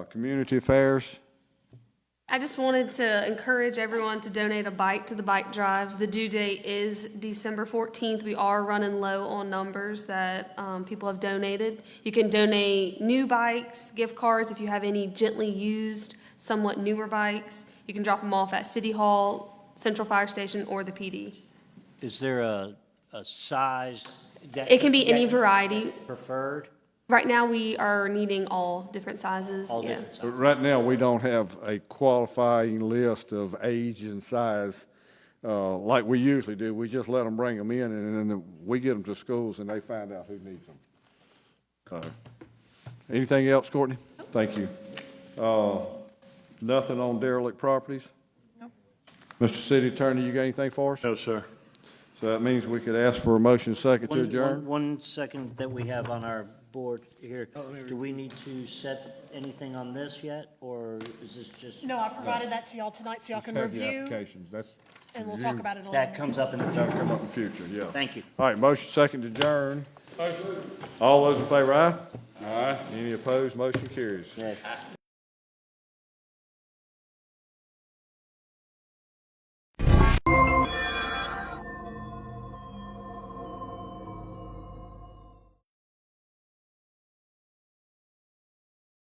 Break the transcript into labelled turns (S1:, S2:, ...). S1: Uh, Community affairs,
S2: I just wanted to encourage everyone to donate a bike to the bike drive. The due date is December 14th. We are running low on numbers that um, people have donated. You can donate new bikes, gift cards, if you have any gently used, somewhat newer bikes. You can drop them off at City Hall, Central Fire Station, or the PD.
S3: Is there a, a size that?
S2: It can be any
S3: that
S2: variety.
S3: Preferred?
S2: Right now, we are needing all different sizes.
S3: All
S2: yeah.
S3: different sizes?
S1: But right now, we don't have a qualifying list of age and size uh, like we usually do. We just let them bring them in, and then we get them to schools, and they find out who needs them. So, Anything else, Courtney? Thank you. Uh, Nothing on derelict properties? No. Mr. City Attorney, you got anything for us?
S4: No, sir.
S1: So that means we could ask for a motion second
S3: One-
S1: to
S3: one-
S1: adjourn?
S3: One second that we have on our board here. Do we need to set anything on this yet, or is this just?
S5: No, I provided that to y'all tonight, so y'all can review,
S1: that's
S5: and we'll talk about it a little
S3: That comes up in the third.
S1: in the future, yeah.
S3: Thank you.
S1: All right, motion second to adjourn. All those in favor, aye? Aye. Any opposed, motion carries.
S3: Yes.